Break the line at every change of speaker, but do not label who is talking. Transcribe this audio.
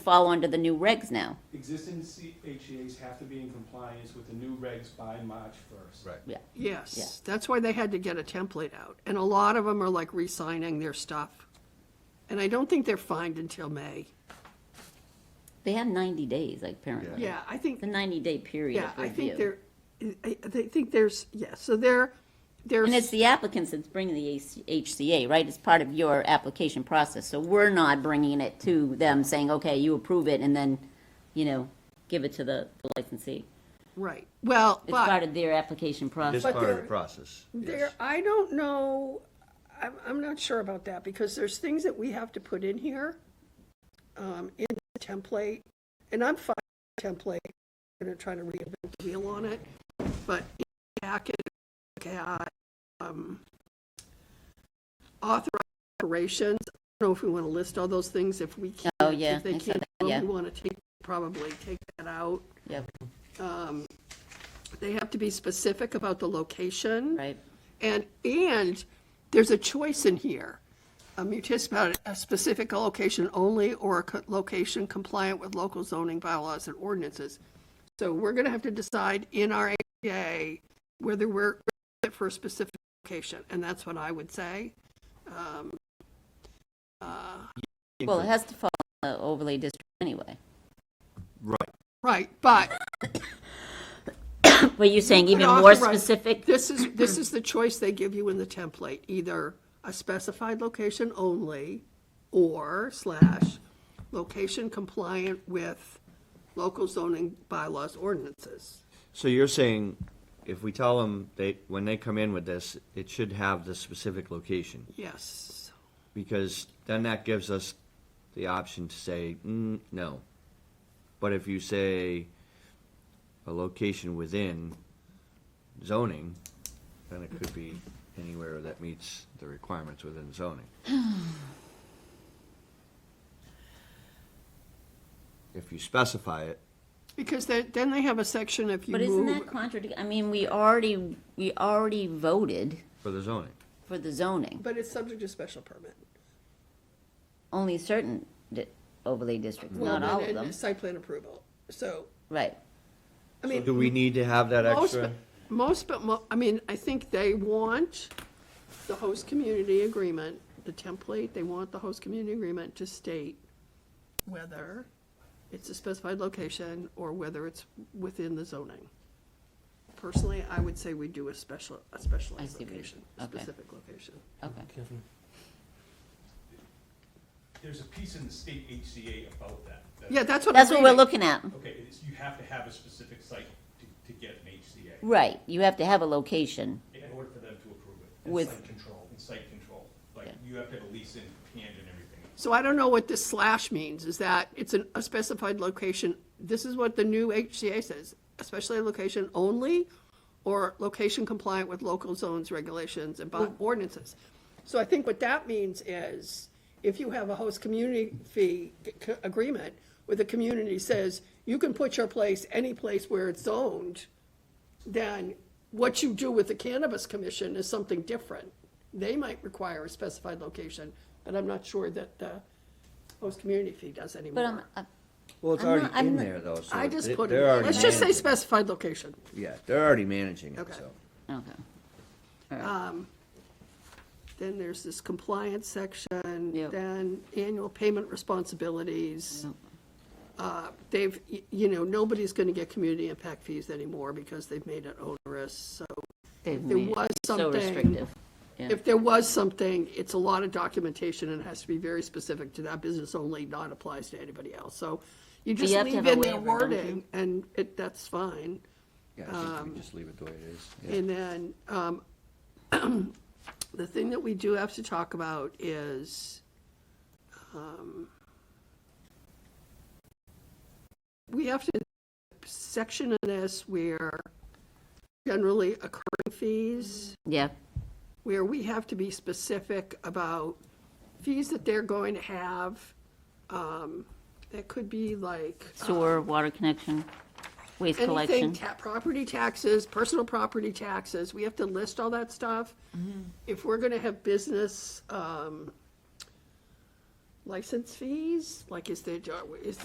fall under the new regs now.
Existing CHAs have to be in compliance with the new regs by March first.
Right.
Yeah. Yeah.
Yes, that's why they had to get a template out. And a lot of them are like re-signing their stuff. And I don't think they're fined until May.
They have ninety days, like, apparently.
Yeah, I think,
The ninety day period
yeah,
of
I think
review.
they're, I I think there's, yeah, so they're,
And it's
there's,
the applicants that's bringing the AC HCA, right? It's part of your application process, so we're not bringing it to them saying, okay, you approve it, and then, you know, give it to the the licensee.
right, well,
It's part
but
of their application
This
process.
But
part of the
there-
process.
there,
yes.
I don't know, I'm, I'm not sure about that because there's things that we have to put in here, um, in the template. And I'm fine with the template, I'm gonna try to reinvent the wheel on it, but in the packet, okay, I, um, authorized operations, I don't know if we want to list all those things, if we can't.
Oh, yeah,
If they
I saw
can't,
that,
do
yeah.
them, we want to take, probably take that out.
Yep,
Um, They have to be specific about the location.
right.
And, and there's a choice in here. A municipal, a specific location only or a co- location compliant with local zoning bylaws and ordinances. So we're going to have to decide in our APA whether we're fit for a specific location, and that's what I would say.
Well, it has to fall in the overlay district anyway.
Right.
Right, but
But you're saying even
could
more
authorize-
specific?
This is, this is the choice they give you in the template, either a specified location only or slash location compliant with local zoning bylaws ordinances.
So you're saying if we tell them they, when they come in with this, it should have the specific location?
Yes,
Because then that gives us the option to say, mm, no. But if you say a location within zoning, then it could be anywhere that meets the requirements within zoning. If you specify it,
because then, then they have a section if you
But isn't that
move.
contradict, I mean, we already, we already voted
for the zoning.
for the zoning.
But it's subject to special permit.
only certain di- overlay districts,
Well,
not all of
and-
them.
and Site plan approval, so,
Right.
I mean.
Do we need to have that
Most,
extra?
but, most, but, mo- I mean, I think they want the host community agreement, the template, they want the host community agreement to state whether it's a specified location or whether it's within the zoning. Personally, I would say we do a special, a
I
specialized
see what you-
location,
okay.
specific location.
Okay.
There's a piece in the state HCA about that. that-
Yeah, that's what I'm
That's what we're
reading.
looking at.
Okay, it's, you have to have a specific site to, to get an HCA
Right. You have to have a location.
in order for them to approve it.
With-
And site control, and site control, like,
Yeah.
you have to have a lease in hand and everything.
So I don't know what this slash means, is that it's an- a specified location, this is what the new HCA says, especially location only, or location compliant with local zones regulations and bond ordinances. So I think what that means is, if you have a host community fee c- agreement, where the community says, you can put your place any place where it's zoned, then what you do with the cannabis commission is something different. They might require a specified location, but I'm not sure that the host community fee does
But I'm,
anymore.
uh,
Well, it's
I'm
already
not- I'm
in
not-
there though, so.
um, I just
they-
put
they're
it,
already
let's just say
managing
specified location.
it. Yeah, they're already managing it,
Okay.
so.
okay.
Uh, Then there's this compliance section,
Yep.
then annual payment responsibilities.
Yep.
Uh, They've, y- you know, nobody's gonna get community impact fees anymore because they've made it onerous, so
They've
there
made it
was
so
something-
restrictive. Yeah.
If there was something, it's a lot of documentation and it has to be very specific to that business only, not applies to anybody else. So you just
have to
leave
have a
in their
waiver, don't you?
wording and it, that's fine.
Yeah, I think we just leave it the way it is. Yeah.
And then, um, the thing that we do have to talk about is, um, we have to section in this where generally occurring fees
Yeah.
where we have to be specific about fees that they're going to have. um, That could be like
Sewer, water connection, waste
Uh, anything,
collection.
ta- property taxes, personal property taxes. We have to list all that stuff. If we're going to have business um, license fees, like is there, is